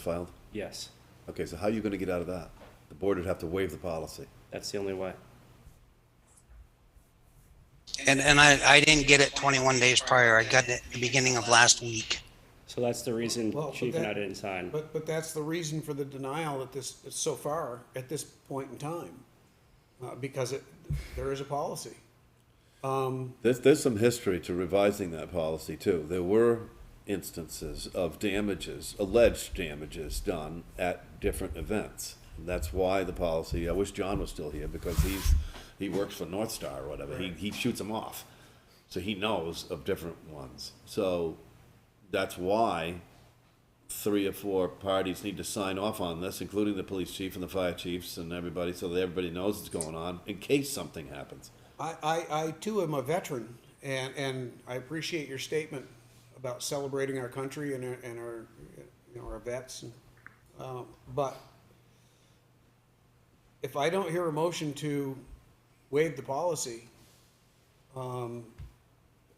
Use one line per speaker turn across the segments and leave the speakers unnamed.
filed?
Yes,
Okay, so how are you gonna get out of that? The board would have to waive the policy.
that's the only way.
And, and I, I didn't get it 21 days prior. I got it at the beginning of last week.
So that's the reason
Well, but
Chief and I
that-
didn't sign.
But, but that's the reason for the denial at this, so far, at this point in time. Uh, because it, there is a policy.
There's, there's some history to revising that policy too. There were instances of damages, alleged damages done at different events. That's why the policy, I wish John was still here because he's, he works for North Star or whatever. He, he shoots them off. So he knows of different ones. So that's why three or four parties need to sign off on this, including the police chief and the fire chiefs and everybody, so that everybody knows what's going on in case something happens.
I, I, I too am a veteran and, and I appreciate your statement about celebrating our country and our, and our, you know, our vets. and, Um, but if I don't hear a motion to waive the policy, um,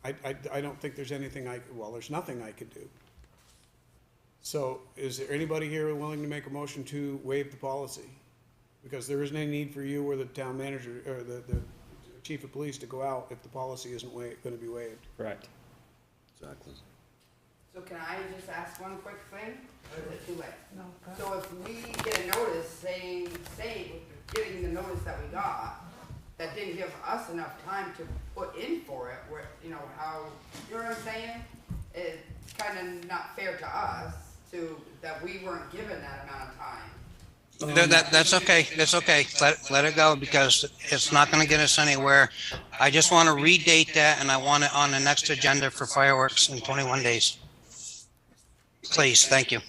I, I, I don't think there's anything I, well, there's nothing I could do. So is there anybody here willing to make a motion to waive the policy? Because there isn't any need for you or the town manager, or the, the chief of police to go out if the policy isn't wa, gonna be waived.
Correct.
Exactly.
So can I just ask one quick thing? Or is it too late? No. So if we get a notice saying, say, getting the notice that we got, that didn't give us enough time to put in for it, where, you know, how, you know what I'm saying? It's kinda not fair to us to, that we weren't given that amount of time.
That, that- that's okay. That's okay. Let, let it go because it's not going to get us anywhere. I just want to redate that and I want it on the next agenda for fireworks in 21 days. Please, thank you.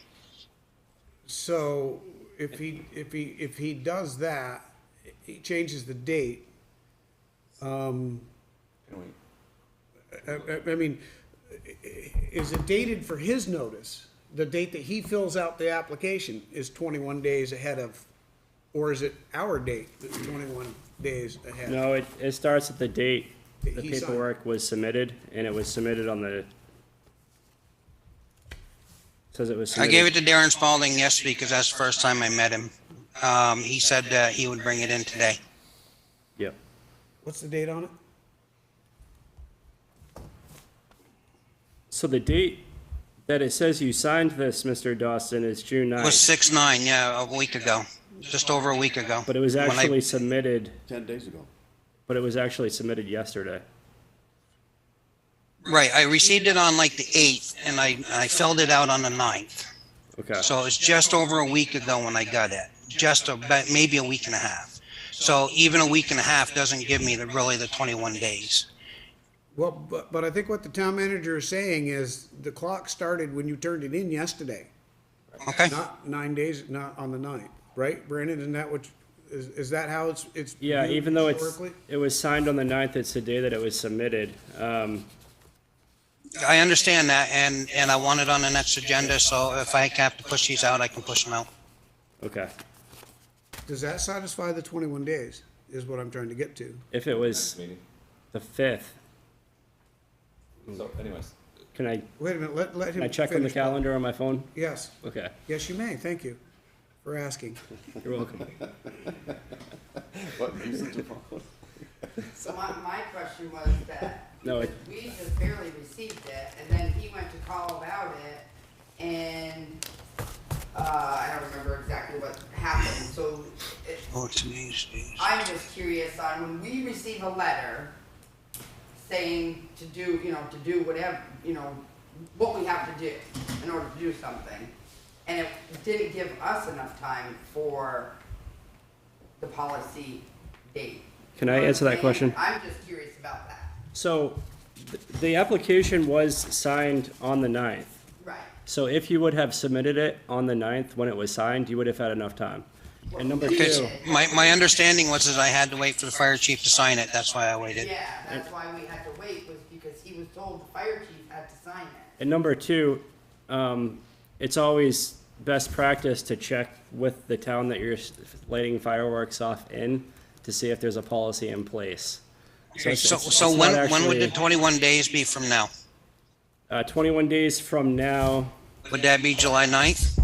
So if he, if he, if he does that, he changes the date. Um. I, I, I mean, is it dated for his notice? The date that he fills out the application is twenty-one days ahead of, or is it our date that's twenty-one days ahead?
No, it, it starts at the date the
He signed.
paperwork was submitted, and it was submitted on the. Says it was
I gave it
submitted,
to Darren Spalding yesterday because that's the first time I met him. Um, he said that he would bring it in today.
yep,
What's the date on it?
so the date that it says you signed this, Mr. Dawson, is June
It was
ninth,
six nine, yeah, a week ago, just over a week ago.
but it was
When I-
actually submitted,
Ten days ago.
but it was actually submitted yesterday.
Right, I received it on like the eighth and I, I filled it out on the ninth.
Okay,
So it's just over a week ago when I got it, just about, maybe a week and a half. So even a week and a half doesn't give me the, really the twenty-one days.
Well, but, but I think what the town manager is saying is the clock started when you turned it in yesterday,
Okay?
not nine days, not on the ninth, right, Brandon? Isn't that what, is, is that how it's, it's?
yeah,
viewed
even though it's,
historically?
it was signed on the ninth, it's the day that it was submitted, um,
I understand that and, and I want it on the next agenda, so if I have to push these out, I can push them out.
okay.
Does that satisfy the twenty-one days, is what I'm trying to get to?
If it was
meeting.
the fifth,
So anyways,
can I,
Wait a minute, let, let him
can I check on the
finish, Paul.
calendar on my phone?
Yes,
Okay,
yes, you may, thank you for asking.
you're welcome.
What, you said tomorrow?
So my, my question was that,
No, I-
we just barely received it, and then he went to call about it, and, uh, I don't remember exactly what happened, so it,
Oh, it's amazing.
I'm just curious on when we receive a letter saying to do, you know, to do whatever, you know, what we have to do in order to do something, and it didn't give us enough time for the policy date.
Can I answer that question?
I'm just curious about that.
So, th- the application was signed on the 9th.
Right.
So if you would have submitted it on the 9th when it was signed, you would have had enough time. And number
Because
two,
my, my understanding was is I had to wait for the fire chief to sign it, that's why I waited.
Yeah, that's why we had to wait, was because he was told the fire chief had to sign it.
and number two, um, it's always best practice to check with the town that you're s- lighting fireworks off in to see if there's a policy in place. it's-
So,
it's-
so
it's
when,
not
when would the
actually-
twenty-one days be from now?
Uh, twenty-one days from now,
Would that be July ninth?